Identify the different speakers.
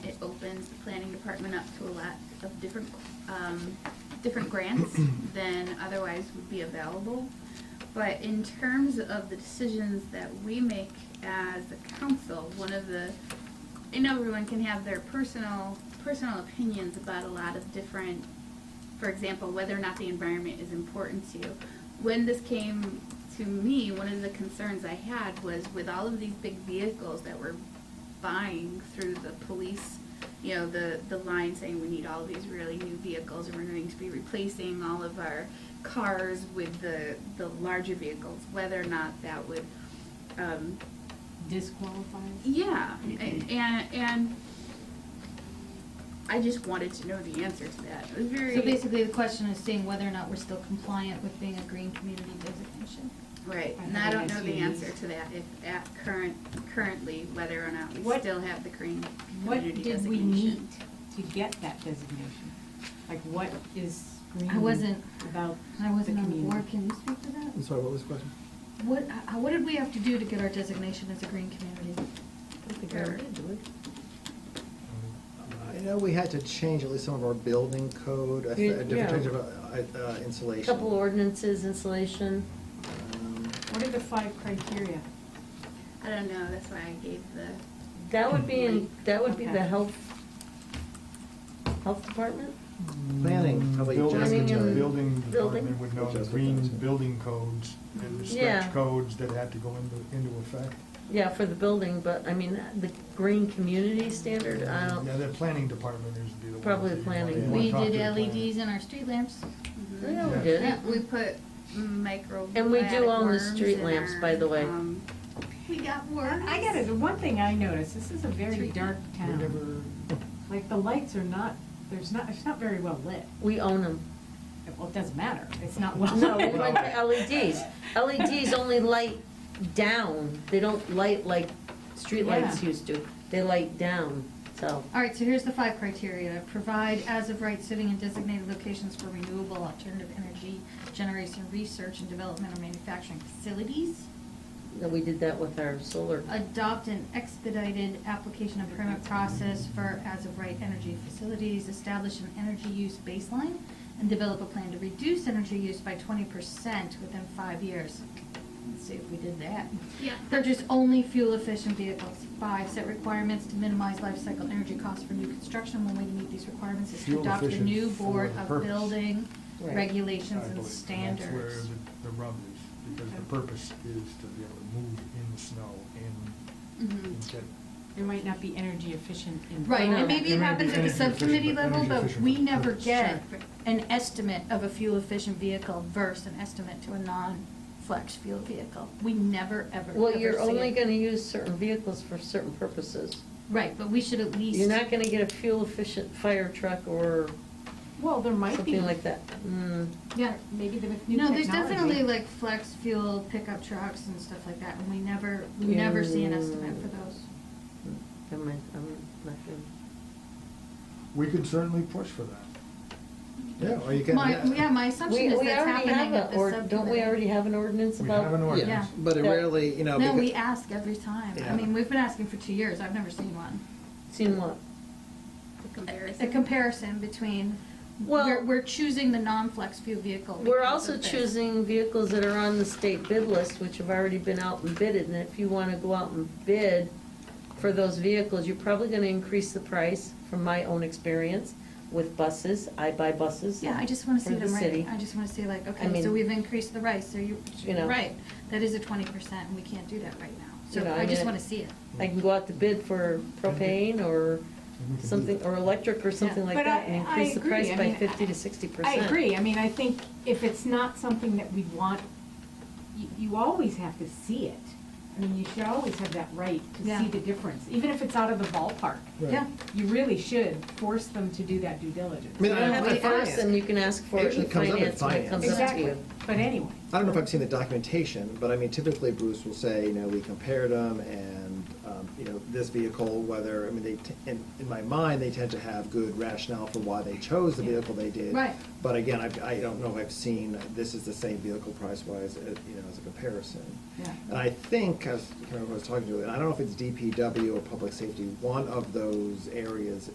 Speaker 1: opens the planning department up to a lot of different, um, different grants than otherwise would be available. But in terms of the decisions that we make as a council, one of the, I know everyone can have their personal, personal opinions about a lot of different, for example, whether or not the environment is important to you. When this came to me, one of the concerns I had was with all of these big vehicles that were buying through the police, you know, the, the line saying we need all these really new vehicles and we're going to be replacing all of our cars with the, the larger vehicles, whether or not that would, um,
Speaker 2: Disqualified?
Speaker 1: yeah, a- and, and I just wanted to know the answer to that. It was very,
Speaker 2: So basically, the question is seeing whether or not we're still compliant with being a green community designation.
Speaker 1: right,
Speaker 2: I
Speaker 1: and I don't
Speaker 2: think
Speaker 1: know the
Speaker 2: that's
Speaker 1: answer to that, if at current, currently, whether or not we
Speaker 3: What-
Speaker 1: still have the green
Speaker 3: What
Speaker 1: community
Speaker 3: did we
Speaker 1: designation.
Speaker 3: need to get that designation? Like, what is green
Speaker 2: I wasn't,
Speaker 3: about
Speaker 2: I
Speaker 3: the
Speaker 2: wasn't on the board,
Speaker 3: community?
Speaker 2: can you speak to that?
Speaker 4: I'm sorry, what was the question?
Speaker 2: What, uh, what did we have to do to get our designation as a green community?
Speaker 4: I Uh, know we had to change at least some of our building code, a th- a different
Speaker 5: Yeah.
Speaker 4: type of uh, uh, insulation.
Speaker 5: Couple ordinances, installation.
Speaker 4: Um,
Speaker 3: What are the five criteria?
Speaker 1: I don't know, that's why I gave the,
Speaker 5: That would be in, that would be the
Speaker 3: Okay.
Speaker 5: health, health department?
Speaker 4: Planning, probably
Speaker 6: Building-
Speaker 4: just
Speaker 5: Planning and-
Speaker 4: in
Speaker 6: Building
Speaker 5: building?
Speaker 6: department would know the
Speaker 4: Just in
Speaker 6: green
Speaker 4: time.
Speaker 6: building codes and the
Speaker 5: Yeah.
Speaker 6: strict codes that had to go into, into effect.
Speaker 5: Yeah, for the building, but I mean, the green community standard, I
Speaker 6: Yeah,
Speaker 5: don't,
Speaker 6: the planning department is the one.
Speaker 5: Probably planning.
Speaker 2: We did E LEDs in our street lamps.
Speaker 1: mhm.
Speaker 5: yeah,
Speaker 6: Yeah.
Speaker 5: we did.
Speaker 1: Yeah, we put micro.
Speaker 5: And we do own the
Speaker 1: worms
Speaker 5: street
Speaker 1: in
Speaker 5: lamps,
Speaker 1: our,
Speaker 5: by the way.
Speaker 1: um, We got worms.
Speaker 3: I got it, the one thing I noticed, this is a very dark
Speaker 6: We
Speaker 3: town.
Speaker 6: never,
Speaker 3: Like, the lights are not, there's not, it's not very well lit.
Speaker 5: We own them.
Speaker 3: Well, it doesn't matter, it's not well
Speaker 5: No,
Speaker 3: lit.
Speaker 5: we went to LEDs. LEDs E only light down, they don't light like streetlights
Speaker 3: Yeah.
Speaker 5: used to. They light down, so.
Speaker 2: All right, so here's the five criteria. Provide as of right sitting in designated locations for renewable alternative energy generation, research and development or manufacturing facilities.
Speaker 5: yeah, We did that with our solar.
Speaker 2: Adopt an expedited application and permit process for as of right energy facilities. Establish an energy use baseline and develop a plan to reduce energy use by twenty percent within five years. Let's see if we did that.
Speaker 1: Yeah.
Speaker 2: Purchase only fuel-efficient vehicles. Five, set requirements to minimize life cycle energy costs for new construction. One way to meet these requirements is to adopt a
Speaker 6: Fuel-efficient
Speaker 2: new
Speaker 6: for
Speaker 2: board
Speaker 6: the
Speaker 2: of
Speaker 6: purpose.
Speaker 2: building
Speaker 5: Right.
Speaker 6: I
Speaker 2: regulations
Speaker 6: believe, and
Speaker 2: and
Speaker 6: That's where
Speaker 2: standards.
Speaker 6: the, the rub is, because the purpose is to be able to move in the snow
Speaker 2: Mm-hmm.
Speaker 1: Mhm.
Speaker 6: and get
Speaker 3: It might not be energy efficient in.
Speaker 2: Right,
Speaker 5: No.
Speaker 2: and maybe
Speaker 6: It
Speaker 2: it
Speaker 6: may
Speaker 2: happens
Speaker 6: be
Speaker 2: at the
Speaker 6: energy efficient,
Speaker 2: subcommittee
Speaker 6: but
Speaker 2: level,
Speaker 6: energy
Speaker 2: but
Speaker 6: efficient
Speaker 2: we
Speaker 6: for the
Speaker 2: never
Speaker 6: purpose.
Speaker 2: get
Speaker 1: Sure.
Speaker 2: an estimate of a fuel-efficient vehicle versus an estimate to a non-flex fuel vehicle. We never, ever, ever see
Speaker 5: Well, you're only
Speaker 2: it.
Speaker 5: gonna use certain vehicles for certain purposes.
Speaker 2: Right, but we should at least.
Speaker 5: You're not gonna get a fuel efficient fire truck or
Speaker 3: Well, there might be.
Speaker 5: something like that. Mm,
Speaker 2: Yeah.
Speaker 3: Maybe the new technology.
Speaker 2: No, there's definitely like flex fuel pickup trucks and stuff like that, and we never, we never see an estimate for those.
Speaker 5: never mind, I'm not gonna.
Speaker 6: We could certainly push for that.
Speaker 4: Yeah, or you can.
Speaker 2: My, yeah, my assumption
Speaker 5: We,
Speaker 2: is
Speaker 5: we
Speaker 2: that's
Speaker 5: already have
Speaker 2: happening at
Speaker 5: a,
Speaker 2: the
Speaker 5: or,
Speaker 2: subcommittee.
Speaker 5: don't we already have an ordinance
Speaker 6: We
Speaker 5: about?
Speaker 6: have
Speaker 4: Um,
Speaker 6: an ordinance.
Speaker 2: Yeah.
Speaker 4: But it
Speaker 5: Yeah.
Speaker 4: rarely, you know.
Speaker 2: No,
Speaker 4: becau-
Speaker 2: we ask every time. I
Speaker 4: Yeah.
Speaker 2: mean, we've been asking for two years. I've never seen one.
Speaker 5: Seen what?
Speaker 1: The
Speaker 2: A
Speaker 1: comparison.
Speaker 2: comparison between,
Speaker 5: Well-
Speaker 2: we're, we're choosing the non-flex fuel vehicle.
Speaker 5: We're
Speaker 2: because
Speaker 5: also
Speaker 2: of this.
Speaker 5: choosing vehicles that are on the state bid list, which have already been out and bidded, and if you wanna go out and bid for those vehicles, you're probably gonna increase the price, from my own experience, with buses, I buy buses.
Speaker 2: Yeah, I just wanna see
Speaker 5: For the
Speaker 2: them right.
Speaker 5: city.
Speaker 2: I just wanna see like, okay,
Speaker 5: mean-
Speaker 2: so we've increased the rice, so you,
Speaker 5: You know.
Speaker 2: right, that is a twenty percent, and we can't do that right now.
Speaker 5: You
Speaker 2: So
Speaker 5: know, I
Speaker 2: I just
Speaker 5: mean-
Speaker 2: wanna see it.
Speaker 5: I can go out to bid for propane or
Speaker 6: And we can do
Speaker 5: something,
Speaker 6: that.
Speaker 5: or electric or something like
Speaker 3: But
Speaker 5: that,
Speaker 3: I-
Speaker 5: and
Speaker 3: I
Speaker 5: increase the
Speaker 3: agree.
Speaker 5: price
Speaker 3: I
Speaker 5: by
Speaker 3: mean,
Speaker 5: fifty to sixty
Speaker 3: I
Speaker 5: percent.
Speaker 3: agree, I mean, I think if it's not something that we want, you, you always have to see it. I mean, you should always have that right to
Speaker 2: Yeah.
Speaker 3: see the difference, even if it's out of the ballpark.
Speaker 4: Right.
Speaker 2: Yeah.
Speaker 3: You really should force them to do that due diligence.
Speaker 4: I mean,
Speaker 5: You
Speaker 4: I
Speaker 5: don't
Speaker 4: don't
Speaker 5: have
Speaker 4: know
Speaker 5: to
Speaker 4: if I
Speaker 5: force them, you can ask for it
Speaker 4: Usually
Speaker 5: in
Speaker 4: it comes up in
Speaker 5: finance when it comes up to
Speaker 3: Exactly.
Speaker 5: you.
Speaker 3: But anyway.
Speaker 4: I don't know if I've seen the documentation, but I mean, typically Bruce will say, you know, we compared them and, um, you know, this vehicle, whether, I mean, they, t- in, in my mind, they tend to have good rationale for why they chose the vehicle they did.
Speaker 2: Right.
Speaker 4: But again, I, I don't know if I've seen, this is the same vehicle price-wise, uh, you know, as a comparison.
Speaker 3: Yeah.
Speaker 4: And I think, as, I was talking to, and I don't know if it's DPW or Public Safety, one of those areas